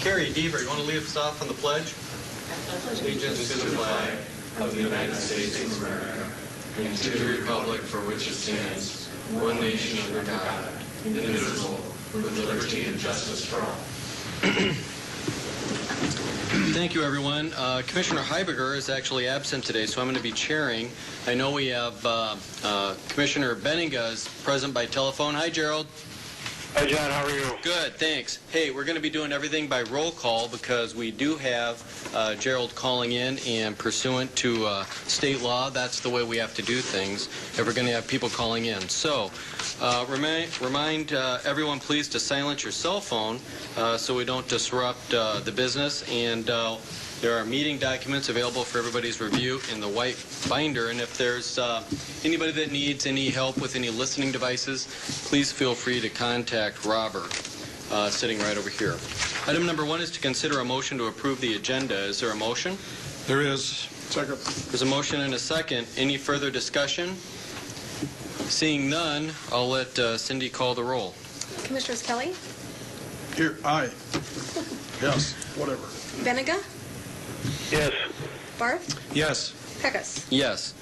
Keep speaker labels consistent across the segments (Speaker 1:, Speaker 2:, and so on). Speaker 1: Carrie Deaver, you want to lead us off on the pledge? Allegiance to the flag
Speaker 2: of the United States of America and to the republic for which it stands, one nation under God, indivisible, with liberty and justice for all.
Speaker 1: Thank you, everyone. Uh, Commissioner Heiberger is actually absent today, so I'm going to be chairing. I know we have uh, uh, Commissioner Benninga is present by telephone. Hi, Gerald.
Speaker 3: Hi, John, how are you?
Speaker 1: Good, thanks. Hey, we're going to be doing everything by roll call because we do have uh, Gerald calling in, and pursuant to uh, state law, that's the way we have to do things if we're going to have people calling in. So uh, remind, remind uh, everyone, please, to silence your cell phone uh, so we don't disrupt uh, the business. And uh, there are meeting documents available for everybody's review in the white binder. And if there's uh, anybody that needs any help with any listening devices, please feel free to contact Robert, uh, sitting right over here. Item number one is to consider a motion to approve the agenda. Is there a motion?
Speaker 4: There is. Second.
Speaker 1: There's a motion and a second. Any further discussion? Seeing none, I'll let uh, Cindy call the roll.
Speaker 5: Commissioners Kelly,
Speaker 4: Here, aye. Yes, whatever.
Speaker 5: Benega,
Speaker 3: Yes.
Speaker 5: Barth,
Speaker 4: Yes.
Speaker 5: Pecos.
Speaker 1: Yes.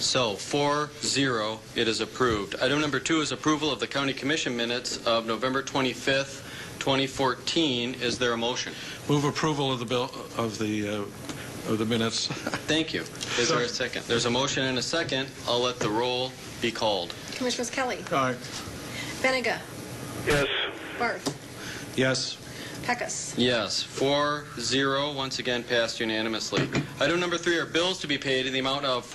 Speaker 1: So, 4-0, it is approved. Item number two is approval of the county commission minutes of November 25th, 2014. Is there a motion?
Speaker 4: Move approval of the bill, of the, uh, of the minutes.
Speaker 1: Thank you. Is there a second? There's a motion and a second. I'll let the roll be called.
Speaker 5: Commissioners Kelly,
Speaker 4: Aye.
Speaker 5: Benega,
Speaker 3: Yes.
Speaker 5: Barth,
Speaker 4: Yes.
Speaker 5: Pecos.
Speaker 1: Yes, 4-0, once again passed unanimously. Item number three are bills to be paid in the amount of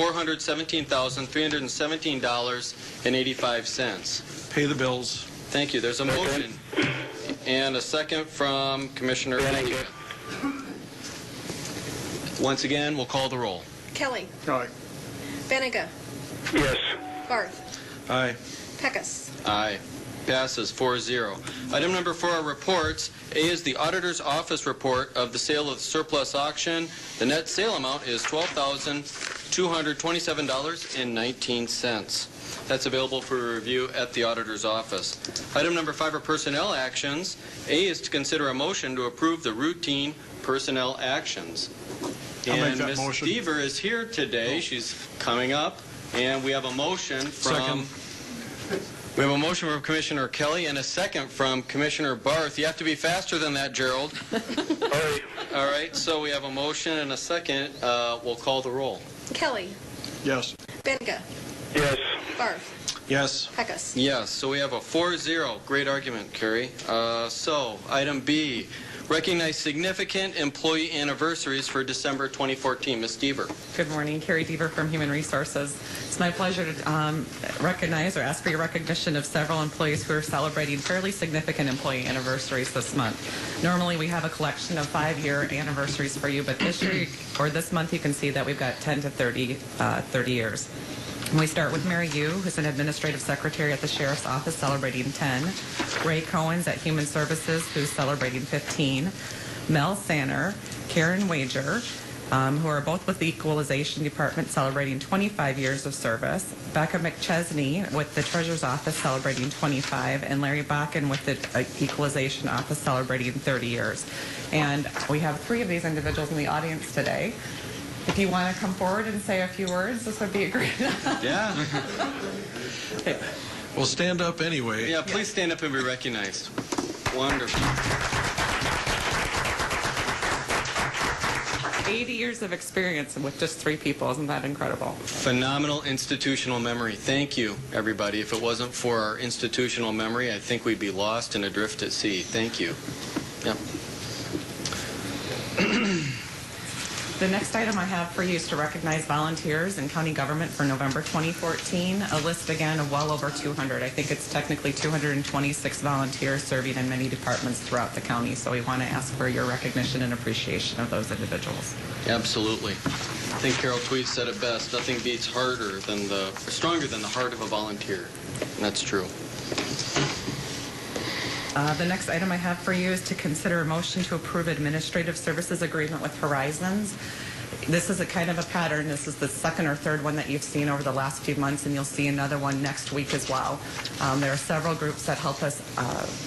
Speaker 1: $417,317.85.
Speaker 4: Pay the bills.
Speaker 1: Thank you. There's a motion and a second from Commissioner Benega. Once again, we'll call the roll.
Speaker 5: Kelly,
Speaker 4: Aye.
Speaker 5: Benega,
Speaker 3: Yes.
Speaker 5: Barth,
Speaker 4: Aye.
Speaker 5: Pecos.
Speaker 1: Aye. Passes 4-0. Item number four are reports. A is the Auditor's Office report of the sale of surplus auction. The net sale amount is $12,227.19. That's available for review at the Auditor's Office. Item number five are personnel actions. A is to consider a motion to approve the routine personnel actions.
Speaker 4: I'll make
Speaker 1: And
Speaker 4: that
Speaker 1: Ms.
Speaker 4: motion. Oh.
Speaker 1: Deaver is here today. She's coming up, and we have a motion from
Speaker 4: Second.
Speaker 1: we have a motion from Commissioner Kelly and a second from Commissioner Barth. You have to be faster than that, Gerald.
Speaker 3: Aye.
Speaker 1: All right, so we have a motion and a second. Uh, We'll call the roll.
Speaker 5: Kelly,
Speaker 4: Yes.
Speaker 5: Benega,
Speaker 3: Yes.
Speaker 5: Barth,
Speaker 4: Yes.
Speaker 5: Pecos.
Speaker 1: Yes, so we have a 4-0. Great argument, Kerry. Uh, So, item B, recognize significant employee anniversaries for December 2014. Ms. Deaver.
Speaker 6: Good morning, Carrie Deaver from Human Resources. It's my pleasure to um, recognize or ask for your recognition of several employees who are celebrating fairly significant employee anniversaries this month. Normally, we have a collection of five-year anniversaries for you, but this year or this month, you can see that we've got 10 to 30, uh, 30 years. And we start with Mary Yu, who's an administrative secretary at the sheriff's office, celebrating 10. Ray Cohen's at Human Services, who's celebrating 15. Mel Sanner, Karen Wager, um, who are both with the Equalization Department celebrating 25 years of service, Becca McChesney with the Treasurer's Office celebrating 25, and Larry Bakken with the uh, Equalization Office celebrating 30 years. And we have three of these individuals in the audience today. If you want to come forward and say a few words, this would be a great.
Speaker 1: Yeah.
Speaker 4: Well, stand up anyway.
Speaker 1: Yeah, please stand up and be recognized. Wonderful.
Speaker 6: 80 years of experience with just three people. Isn't that incredible?
Speaker 1: Phenomenal institutional memory. Thank you, everybody. If it wasn't for our institutional memory, I think we'd be lost and adrift at sea. Thank you. Yep.
Speaker 6: The next item I have for you is to recognize volunteers in county government for November 2014. A list again of well over 200. I think it's technically 226 volunteers serving in many departments throughout the county. So we want to ask for your recognition and appreciation of those individuals.
Speaker 1: Absolutely. I think Carol Tweed said it best. Nothing beats harder than the, or stronger than the heart of a volunteer. And that's true.
Speaker 6: Uh, The next item I have for you is to consider a motion to approve administrative services agreement with Horizons. This is a kind of a pattern. This is the second or third one that you've seen over the last few months, and you'll see another one next week as well. Um, There are several groups that help us uh,